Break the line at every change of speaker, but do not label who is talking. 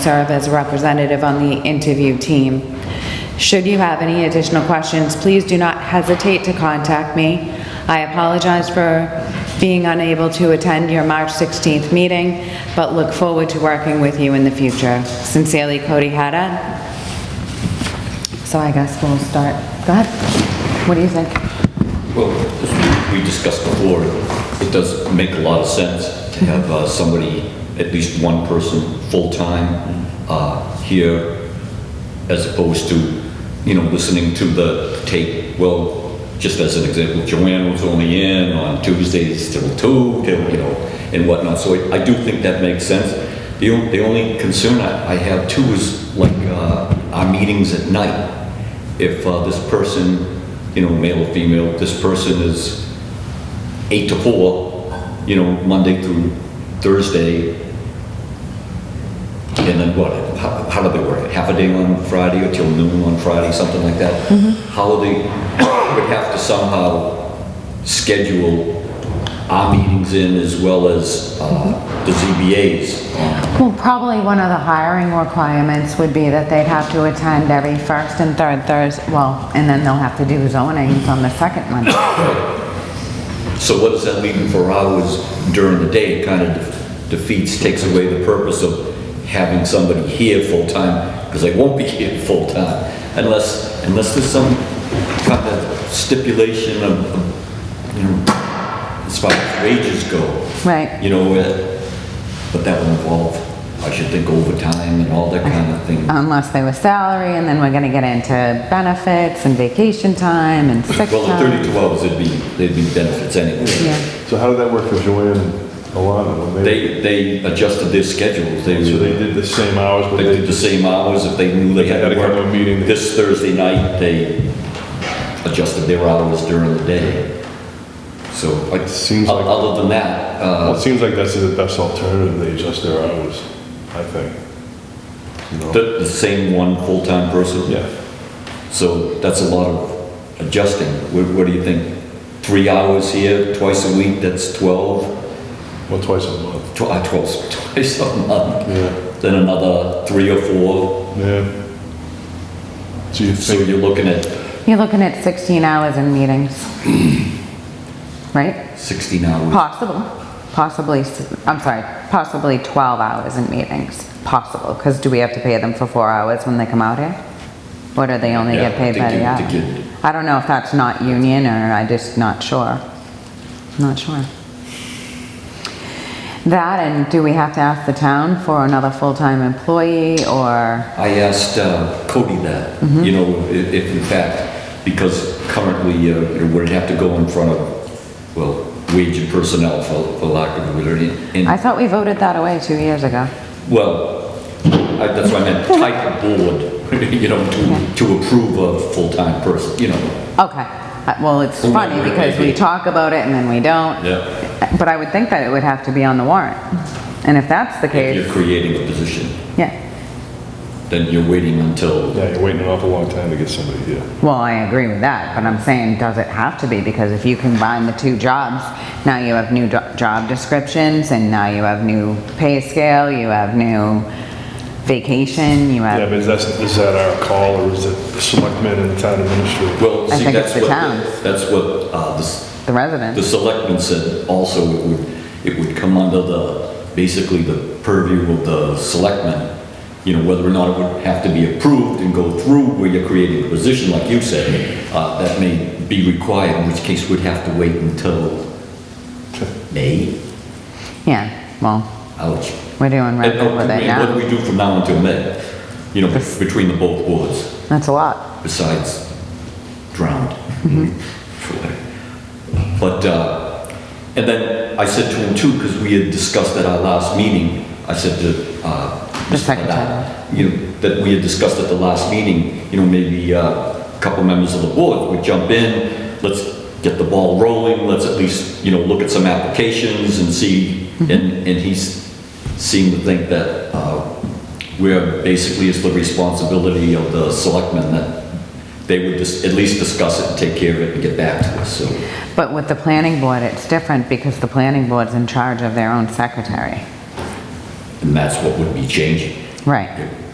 serve as a representative on the interview team. Should you have any additional questions, please do not hesitate to contact me. I apologize for being unable to attend your March 16th meeting, but look forward to working with you in the future. Sincerely, Cody Haddad. So I guess we'll start. Go ahead. What do you think?
Well, as we discussed before, it does make a lot of sense to have uh, somebody, at least one person, full-time uh, here, as opposed to, you know, listening to the tape. Well, just as an example, Joanne was only in on Tuesdays till two, till, you know, and whatnot. So I- I do think that makes sense. The on- the only concern I I have too is like uh, our meetings at night if uh, this person, you know, male or female, this person is eight to four, you know, Monday through Thursday, and then what, how, how do they work? it? Half a day on Friday or till noon on Friday, something like that? How they would have to somehow schedule our meetings in as well as uh, the ZBAs on
Well, probably one of the hiring requirements would be that they'd have to attend every first and third Thursday, well, and then they'll have to do zonings on the second one.
So what does that leaving for hours during the day? It kind of defeats, takes away the purpose of having somebody here full-time, because they won't be here full-time, unless, unless there's some kind of stipulation of, of, you know, as far as wages go.
Right.
You know, uh, but that would involve, I should think, overtime and all that kind of thing.
Unless they were salary, and then we're gonna get into benefits and vacation time and sick
Well, at
time.
32 hours, there'd be, there'd be benefits anyway.
Yeah.
So how did that work for Joanne and Alana? when
They, they adjusted their schedules.
So they did the same hours, but
They
they
did the same hours, if they knew they had to
They had to come to
work
a meeting.
this Thursday night, they adjusted their hours during the day. So, like,
Seems
o-
like-
other than that,
Well,
uh,
it seems like that's the best alternative, they adjust their hours, I think. You know?
the, the same one full-time person,
Yeah,
so that's a lot of adjusting. What, what do you think? Three hours here, twice a week, that's 12,
well, twice a month,
tw- uh, 12, twice a month.
yeah,
Then another three or four,
yeah. So you
so
think,
you're looking at
You're looking at 16 hours in meetings. Right?
16 hours.
Possible, possibly, s- I'm sorry, possibly 12 hours in meetings, possible, because do we have to pay them for four hours when they come out here? Or do they only
Yeah,
get paid
they
by
do-
the hour?
they get-
I don't know if that's not union, or I just not sure. Not sure. That, and do we have to ask the town for another full-time employee, or,
I asked uh, Cody that,
Mm-hmm.
you know, i- if in fact, because currently, uh, it would have to go in front of, well, wage and personnel for for lack of a better name.
I
And,
thought we voted that away two years ago.
well, I- that's what I meant, type of board, you know, to to approve a full-time person, you know.
Okay, Uh, well, it's
Whoever
funny,
it may
because we
be.
talk about it and then we don't.
Yeah.
But I would think that it would have to be on the warrant. And if that's the
If you're
case,
creating a position,
yeah,
then you're waiting until,
yeah, you're waiting an awful long time to get somebody here.
well, I agree with that, but I'm saying, does it have to be? Because if you combine the two jobs, now you have new jo- job descriptions, and now you have new pay scale, you have new vacation, you
Yeah,
have,
but is that, is that our call, or is it the selectmen and the town administrator?
well,
I
see,
think it's
that's
the
what,
town's.
the- that's what uh, this
the
The
residents.
selectmen said also it would, it would come under the, basically the purview of the selectmen, you know, whether or not it would have to be approved and go through where you're creating a position, like you said, uh, that may be required, in which case we'd have to wait until May,
Yeah, well,
ouch.
we're doing
And
record
what
with it
do
now.
we do from now until May? You know, between the both boards,
That's a lot.
besides drowned. For whatever. But, uh, and then I said to him too, because we had discussed at our last meeting, I said to, uh.
The
Mr.
secretary.
Haddad, You know, that we had discussed at the last meeting, you know, maybe uh, a couple members of the board would jump in, let's get the ball rolling, let's at least, you know, look at some applications and see,
Mm-hmm.
and, and he's seemed to think that, uh, we're, basically it's the responsibility of the selectmen that they would just, at least discuss it and take care of it and get back to us, so.
But with the planning board, it's different, because the planning board's in charge of their own secretary.
And that's what would be changing.
Right.